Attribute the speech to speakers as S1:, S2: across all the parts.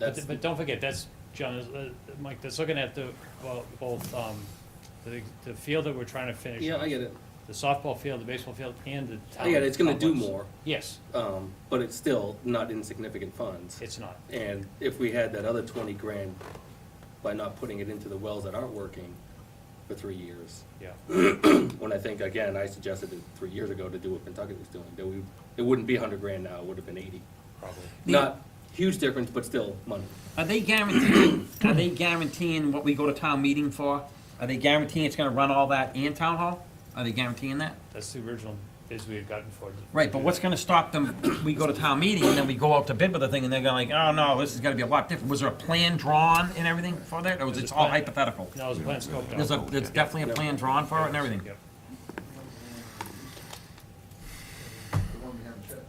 S1: That's,
S2: But, but don't forget, that's, John, uh, Mike, that's looking at the, well, both, um, the, the field that we're trying to finish.
S1: yeah,
S2: up.
S1: I get it.
S2: The softball field, the baseball field, and the town.
S1: I get it, it's gonna do
S2: complex.
S1: more,
S2: Yes,
S1: um, but it's still not insignificant funds.
S2: it's not.
S1: And if we had that other twenty grand by not putting it into the wells that aren't working for three years,
S2: Yeah,
S1: when I think, again, I suggested it three years ago to do what Pentucket was doing, that we, it wouldn't be hundred grand now, it would have been eighty.
S2: probably.
S3: The-
S1: Not huge difference, but still money.
S3: Are they guaranteeing, are they guaranteeing what we go to town meeting for? Are they guaranteeing it's gonna run all that and town hall? Are they guaranteeing that?
S2: That's the original bids we had gotten for it.
S3: Right, but what's gonna stop them, we go to town meeting and then we go out to bid with the thing and they're gonna like, oh no, this is gonna be a lot different. Was there a plan drawn and everything for that, or was it all hypothetical?
S2: No, it was a plan scoped out.
S3: There's a, there's definitely a plan drawn for it and everything.
S2: Yep.
S4: The one we haven't checked.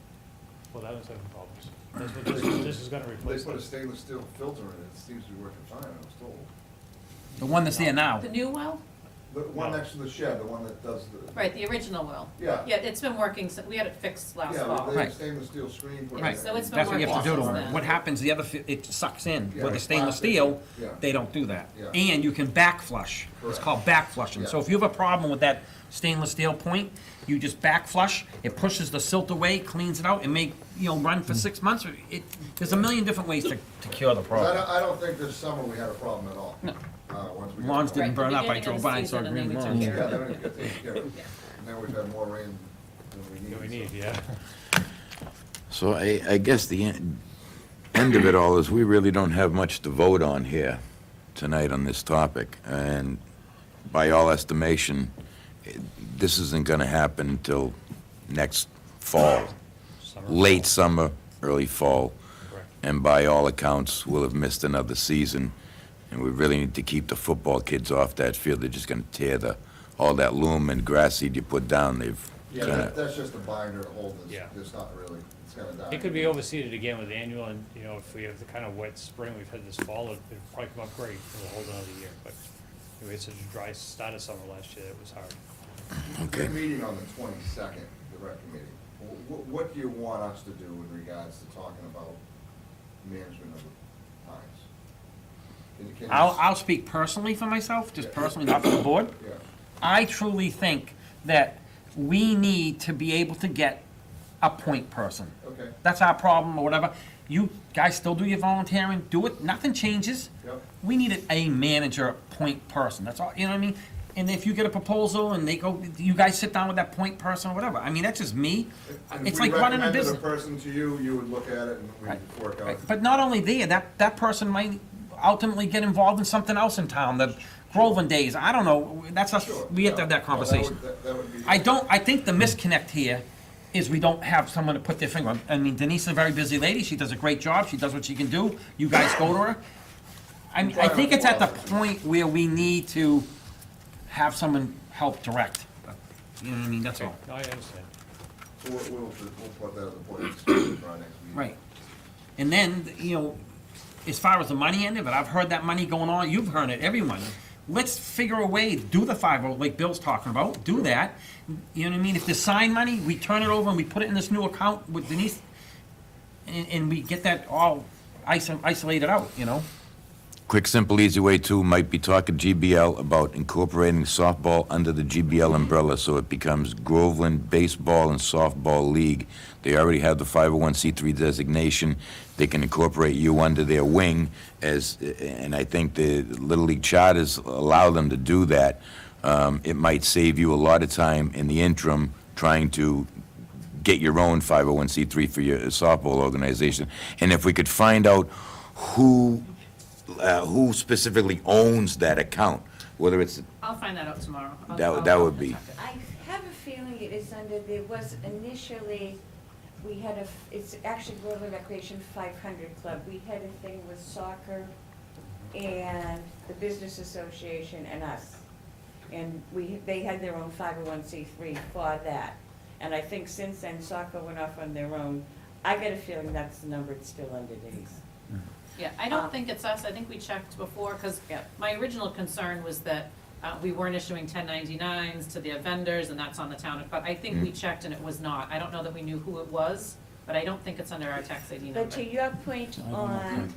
S2: Well, that was having problems. That's what this, is- this is gonna
S4: They
S2: replace.
S4: put a
S2: that.
S4: stainless steel filter in it, it seems to be working fine, I was told.
S3: The one that's there now.
S5: The new well?
S4: The one
S2: No.
S4: next to the shed, the one that does the.
S5: Right, the original well.
S4: Yeah.
S5: Yeah, it's been working, so we had it fixed last
S4: Yeah, but
S5: fall.
S4: they have
S3: Right.
S4: stainless steel screen. put in
S3: Right,
S4: there.
S5: So it's been
S3: that's what you have to do to
S5: working
S3: them. What happens, the other, fi- it sucks in,
S4: Yeah,
S3: with the
S4: it's
S3: stainless
S4: plastic.
S3: steel,
S4: Yeah.
S3: they don't do that.
S4: Yeah.
S3: And you can back flush, it's
S4: Correct.
S3: called back flushing. So
S4: Yeah.
S3: if you have a problem with that stainless steel point, you just back flush, it pushes the silt away, cleans it out, and make, you know, run
S4: Mm.
S3: for six months. It, there's a million different ways to, to cure the
S4: 'Cause I
S3: problem.
S4: don't, I don't think this summer we had a problem at all. Uh, once we. got
S3: Lawns
S4: the-
S3: didn't
S5: Right,
S3: burn
S5: the
S3: up, I
S5: beginning of
S3: drove
S5: the
S3: by and saw
S5: season,
S3: green
S5: and then we
S3: lawns.
S5: took
S4: Yeah, then it got taken care of.
S5: Yeah.
S4: And then we've had more rain than we needed.
S2: Yeah, we need,
S4: so-
S2: yeah.
S6: So I, I guess the en- end of it all is we really don't have much to vote on here tonight on this topic. And by all estimation, eh, this isn't going to happen until next fall,
S2: Summer.
S6: late summer, early fall.
S2: Correct.
S6: And by all accounts, we'll have missed another season. And we really need to keep the football kids off that field. They're just going to tear the, all that loam and grass seed you put down, they've
S4: Yeah,
S6: kinda-
S4: that, that's just a binder to hold this,
S2: Yeah.
S4: it's not really, it's gonna die.
S2: It could be overseeded again with annual, and, you know, if we have the kind of wet spring we've had this fall, it- it'd probably come up great for the whole another year, but we had such a dry start of summer last year, it was hard.
S6: Okay.
S4: They're meeting on the twenty-second, the rec committee. Wh- wh- what do you want us to do in regards to talking about management of the pines? Can you- can you-
S3: I'll, I'll speak personally for myself, just personally, not for the board.
S4: Yeah,
S3: I truly think that we need to be able to get a point person.
S4: okay,
S3: That's our problem or whatever. You guys still do your volunteering, do it, nothing changes.
S4: Yep.
S3: We needed a manager point person, that's all, you know what I mean? And if you get a proposal and they go, you guys sit down with that point person or whatever, I mean, that's just me.
S4: And
S3: It's like running a
S4: If we
S3: business.
S4: recommended a person to you, you would look at it and we'd work out.
S3: Right, But not only there, that, that person might ultimately get involved in something else in town, the Groveland days, I don't know, that's us,
S4: Sure,
S3: we have to
S4: yeah.
S3: have that
S4: No,
S3: conversation.
S4: would- that- that would be-
S3: I don't, I think the misconnect here is we don't have someone to put their finger on. I mean, Denise is a very busy lady, she does a great job, she does what she can do, you guys go to her. I mean, I think it's at the point where we need to have someone help direct. You know what I mean, that's all.
S2: No, I understand.
S4: So We'll, we'll, we'll put that as a point of discussion for our next meeting.
S3: Right. And then, you know, as far as the money end of it, I've heard that money going on, you've heard it, everyone. Let's figure a way, do the five oh, like Bill's talking about, do that. You know what I mean? If there's sign money, we turn it over and we put it in this new account with Denise, and, and we get that all iso- isolated out, you know?
S6: Quick, simple, easy way too might be talking GBL about incorporating softball under the GBL umbrella so it becomes Groveland Baseball and Softball League. They already have the 501c3 designation. They can incorporate you under their wing as, and I think the Little League charters allow them to do that. Um, it might save you a lot of time in the interim trying to get your own 501c3 for your softball organization. And if we could find out who uh, who specifically owns that account, whether it's,
S5: I'll find that out tomorrow. I'll-
S6: That would-
S5: I'll-
S6: that
S5: I'll
S6: would be-
S5: check it.
S7: I have a feeling it is under, there was initially, we had a, f- it's actually Groveland Recreation five hundred club. We had a thing with soccer and the Business Association and us. And we, they had their own five oh one C three for that. And I think since then soccer went off on their own. I get a feeling that's the number it's still under Denise.
S5: Yeah, I don't think it's us, I think we checked before, because my original concern was that uh, we weren't issuing 1099s to the vendors, and that's on the town, but I think
S6: Mm.
S5: we checked and it was not. I don't know that we knew who it was, but I don't think it's under our tax ID number.
S7: But to your point on